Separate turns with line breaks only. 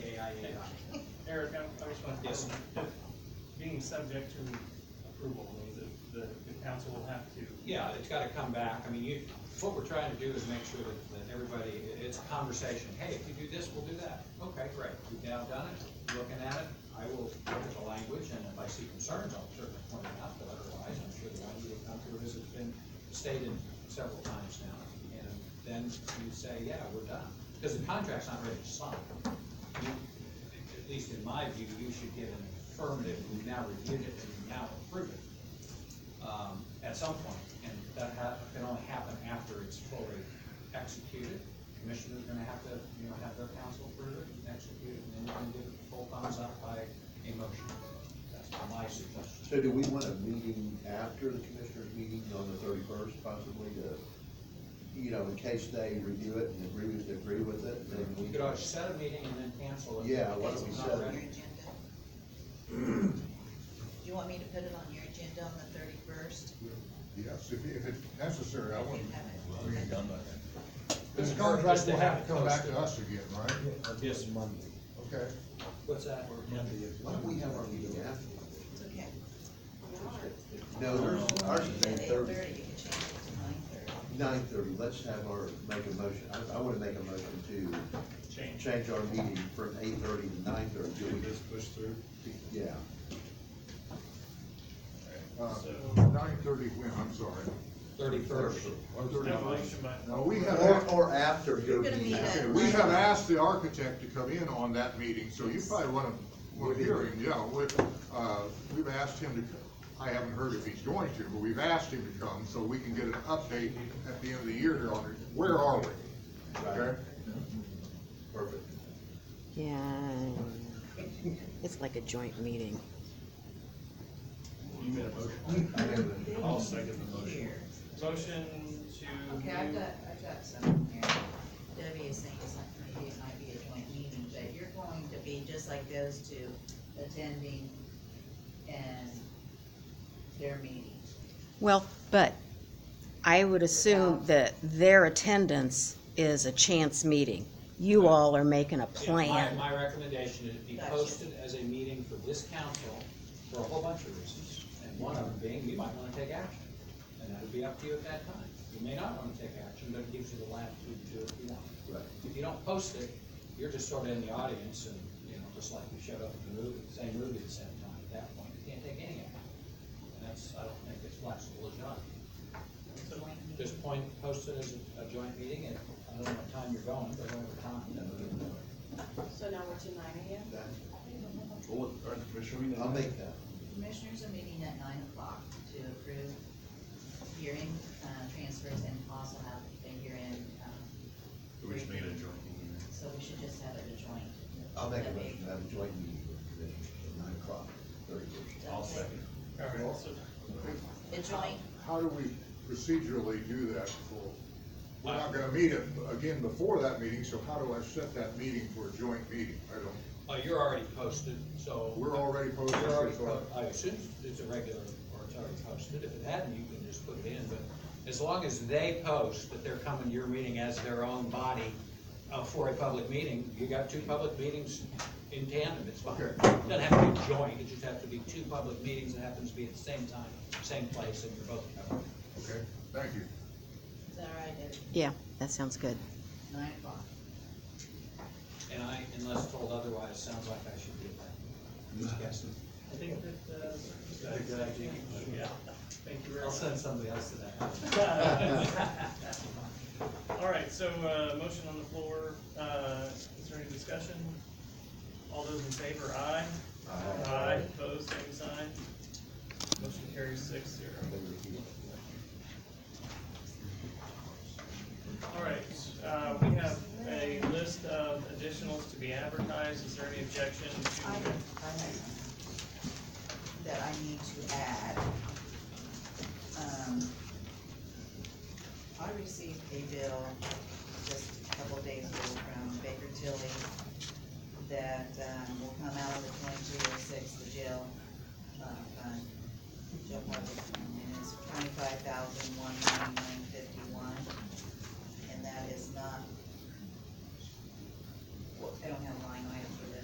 Eric, I I just want to. Being subject to approval means that the, the council will have to.
Yeah, it's gotta come back, I mean, you, what we're trying to do is make sure that, that everybody, it- it's a conversation, hey, if you do this, we'll do that. Okay, great, we've now done it, looking at it, I will look at the language, and if I see concerns, I'll certainly point it out, but otherwise, I'm sure the idea will come through, as it's been stated several times now, and then you say, yeah, we're done, because the contract's not ready to sign. You- At least in my view, you should get an affirmative, we've now reviewed it, and we now approve it um, at some point, and that ha- can only happen after it's fully executed. Commissioner's gonna have to, you know, have their council approve it, and execute it, and then you can give it the full thumbs up by a motion. That's my suggestion.
So do we want a meeting after the commissioners' meeting on the thirty-first possibly to, you know, in case they review it and agree with, agree with it, then we.
We could always set a meeting and then cancel it.
Yeah, why don't we
It's not
set it?
ready.
Your agenda. Do you want me to put it on your agenda on the thirty-first?
Yes, if, if it's necessary, I wouldn't.
We ain't
done that. This
Right,
contract
they
will
have
have to
it
come back
posted.
to us again, right?
Yes.
Monday.
Okay,
What's that?
Why don't we have our meeting after?
It's okay.
No, ours, ours is
At
eight
eight-thirty,
thirty,
you can change it to nine-thirty.
nine thirty, let's have our, make a motion, I, I wanna make a motion to
Change.
change our meeting from eight thirty to nine thirty.
Can we just push through?
Yeah,
uh, nine thirty when, I'm sorry.
Thirty-first.
Or
Revolution,
31st.
but
No, we had,
or,
a-
or after your
You're gonna
meeting.
meet
okay,
at-
we had asked the architect to come in on that meeting, so you probably wanna, wanna
We did.
hear him, yeah. We, uh, we've asked him to, co- I haven't heard if he's going to, but we've asked him to come so we can get an update at the end of the year here on, it. where are we?
Right.
Okay?
Perfect.
Yeah. It's like a joint meeting.
You made a motion.
I know that-
I'll second the motion.
Here.
Motion to.
Okay, I've got, I've got something here. Debbie is saying it's not gonna be, it might be a joint meeting, but you're going to be just like those two attending and their meetings.
Well, but I would assume that their attendance is a chance meeting. You all are making a plan.
My recommendation is be
Gotcha.
posted as a meeting for this council for a whole bunch of reasons, and one of them being, you might wanna take action, and that would be up to you at that time. You may not wanna take action, but it gives you the latitude to do it if you want.
Right.
If you don't post it, you're just sort of in the audience and, you know, just like you showed up at the movie, same movie at the same time at that point. You can't take any action. And that's, I don't think it's flexible enough. Just point, post it as a- a joint meeting and I don't know what time you're going, but whatever time, you know, you can do it.
So now we're to nine AM?
That-
Well, all right, Commissioner,
I'll make that.
Commissioners are meeting at nine o'clock to approve hearing, uh, transfers and also have the hearing, um,
we should make it a joint meeting.
so we should just have it a joint.
I'll make a
That'd be-
motion to have a joint meeting with the commission at nine o'clock, thirty first.
I'll second.
All right, also,
A joint,
How do we procedurally do that for, we're not gonna meet it again before that meeting, so how do I set that meeting for a joint meeting? I don't,
Oh, you're already posted, so.
we're already posted,
You're already
so
po- I assume it's a regular, or it's already posted, if it hadn't, you can just put it in, but as long as they post that they're coming to your meeting as their own body uh, for a public meeting, you got two public meetings in tandem, it's fine.
Okay.
It Doesn't have to be joint, it just have to be two public meetings that happens to be at the same time, same place, and you're both covered.
okay, thank you.
is that all right, Debbie?
Yeah, that sounds good.
Nine o'clock.
And I, unless told otherwise, sounds like I should be at that. Just guessing.
I think that, uh, that's a good idea. Yeah. Thank you very
I'll
much.
send somebody else to that.
All right, so, uh, motion on the floor, uh, is there any discussion? All those in favor, aye?
Aye.
opposed, same sign? Motion carries six zero. All right, uh, we have a list of additionals to be advertised, is there any objection to?
I have, I have that I need to add. Um, I received a bill just a couple days ago from Baker Tilly that, um, will come out of the twenty-two oh six, the jail, uh, fund. Jail public fund, and it's twenty-five thousand one ninety-nine fifty-one, and that is not, I don't have a line item